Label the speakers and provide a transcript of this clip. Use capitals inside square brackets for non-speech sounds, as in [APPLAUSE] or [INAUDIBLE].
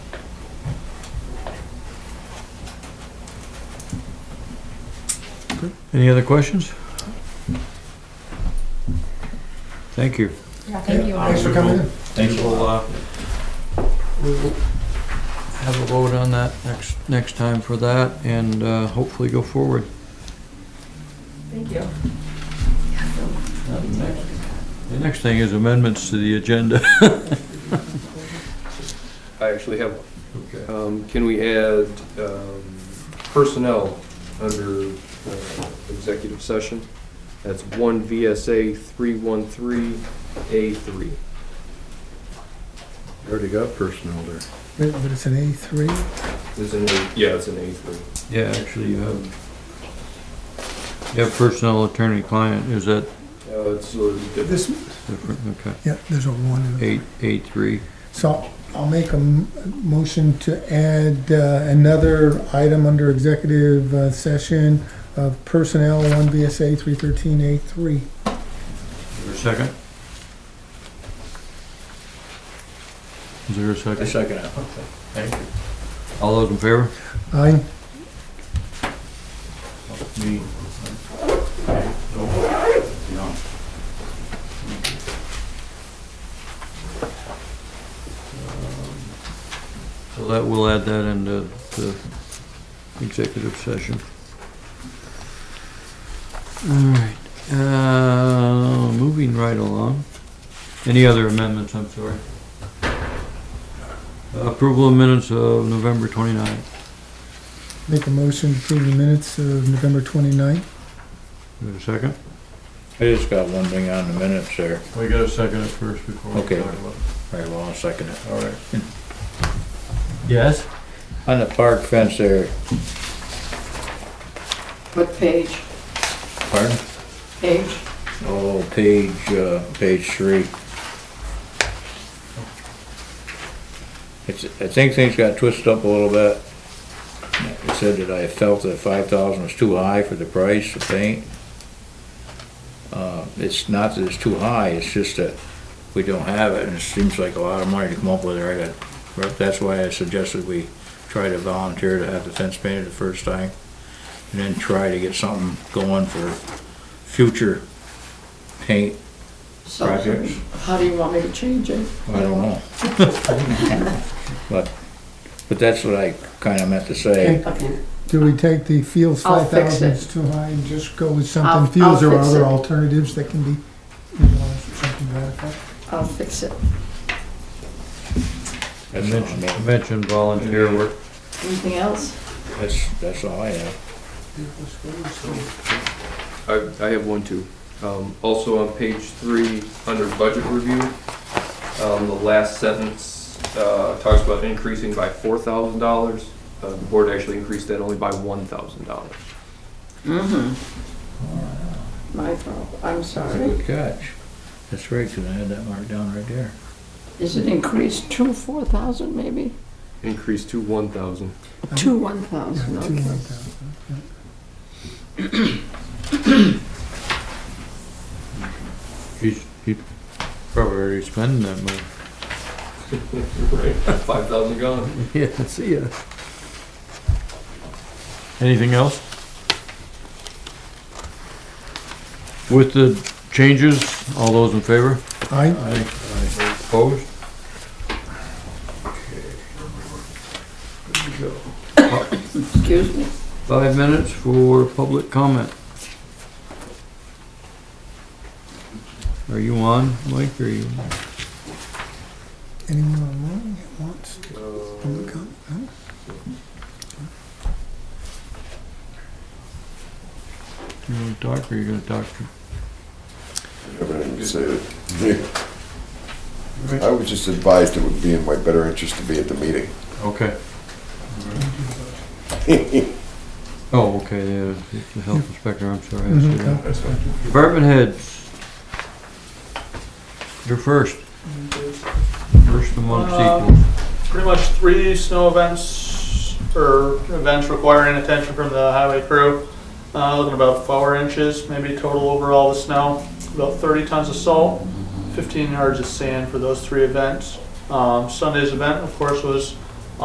Speaker 1: Any other questions? Thank you.
Speaker 2: thank you.
Speaker 3: Thanks for coming in.
Speaker 4: Thank you.
Speaker 1: We'll, uh, we will have a vote on that next, next time for that and, uh, hopefully go forward.
Speaker 2: Thank you.
Speaker 1: The next thing is amendments to the agenda.
Speaker 5: I actually have one. Um, Can we add um, personnel under uh, executive session? That's one VSA 313A3.
Speaker 6: Already got personnel there.
Speaker 3: Wait, But it's an A three?
Speaker 5: Is in, A- yeah, it's an A3.
Speaker 1: Yeah, actually, you have, you have personnel attorney-client, is that
Speaker 5: Uh, It's a little different.
Speaker 3: This,
Speaker 1: different? Okay.
Speaker 3: yeah, there's a one in it.
Speaker 1: Eight, eight, three.
Speaker 3: So I'll make a m- motion to add uh, another item under executive uh, session of personnel, one VSA three thirteen A
Speaker 1: Is
Speaker 3: three.
Speaker 1: there a second? Is there a
Speaker 4: A
Speaker 1: second?
Speaker 4: second. Thank you.
Speaker 1: All those in favor?
Speaker 3: Aye.
Speaker 4: Me. No.
Speaker 1: So that, we'll add that into the executive session. All right, uh, moving right along. Any other amendments, I'm sorry? Approval of minutes of November 29th.
Speaker 3: Make a motion to approve the minutes of November twenty-ninth.
Speaker 1: Is there a second?
Speaker 4: I just got one thing on the minutes there.
Speaker 1: We got a second at first before
Speaker 4: we Okay. talk
Speaker 1: about
Speaker 4: Very well, I'll second it.
Speaker 1: All right. Yes?
Speaker 4: On the park fence there,
Speaker 2: What page?
Speaker 4: pardon?
Speaker 2: Page?
Speaker 4: Oh, page, uh, page three. It's, I think things got twisted up a little bit. It said that I felt that five thousand was too high for the price of paint. Uh, it's not that it's too high, it's just that we don't have it, and it seems like a lot of money to come up with, right? But That's why I suggested we try to volunteer to have the fence painted the first time, and then try to get something going for future paint
Speaker 2: So,
Speaker 4: projects.
Speaker 2: how do you want me to change it?
Speaker 4: I don't know. But, but that's what I kinda meant to say.
Speaker 2: Okay.
Speaker 3: Do we take the Fields
Speaker 2: I'll
Speaker 3: five
Speaker 2: fix
Speaker 3: thousand
Speaker 2: it.
Speaker 3: is too high and just go with
Speaker 2: I'll-
Speaker 3: something Fields
Speaker 2: I'll
Speaker 3: or
Speaker 2: fix
Speaker 3: other
Speaker 2: it.
Speaker 3: alternatives that can be, you know, something to that effect?
Speaker 2: I'll fix it.
Speaker 1: I
Speaker 4: That's all I
Speaker 1: mentioned,
Speaker 4: meant.
Speaker 1: mentioned volunteer work.
Speaker 2: Anything else?
Speaker 4: That's, that's all I have.
Speaker 5: I, I have one too. Um, also on page three, under budget review, um, the last sentence, uh, talks about increasing by four thousand dollars. Uh, the board actually increased that only by one thousand dollars.
Speaker 2: Mm-hmm. My fault, I'm
Speaker 4: That's a
Speaker 2: sorry.
Speaker 4: good catch. That's right, 'cause I had that marked down right there.
Speaker 2: Is it increased to four thousand maybe?
Speaker 5: Increased to one thousand.
Speaker 2: To one
Speaker 3: Uh-huh. Yeah,
Speaker 2: thousand,
Speaker 3: two
Speaker 2: okay.
Speaker 3: like that.
Speaker 1: He's, he probably already spending that money.
Speaker 5: Right. [LAUGHS] Five thousand gone.
Speaker 1: [LAUGHS] Yeah, see ya. Anything else? With the changes, all those in favor?
Speaker 3: Aye.
Speaker 1: Opposed?
Speaker 2: Excuse me.
Speaker 1: Five minutes for public comment. Are you on, Mike, or are you?
Speaker 3: Anyone online that wants
Speaker 5: Uh,
Speaker 3: public comment? No?
Speaker 1: You wanna talk, or you gonna talk to?
Speaker 7: Everything you said. I was just advised it would be in my better interest to be at the meeting.
Speaker 1: Okay. [LAUGHS] Oh, okay, yeah, it's the health inspector, I'm sorry. I see
Speaker 3: Mhm,
Speaker 1: that.
Speaker 3: okay.
Speaker 1: Department heads. You're first. First amongst
Speaker 8: Uh,
Speaker 1: equals.
Speaker 8: pretty much three snow events or events requiring attention from the highway crew. Uh, looking about four inches, maybe total overall of snow, about 30 tons of salt, 15 yards of sand for those three events. Um, Sunday's event, of course, was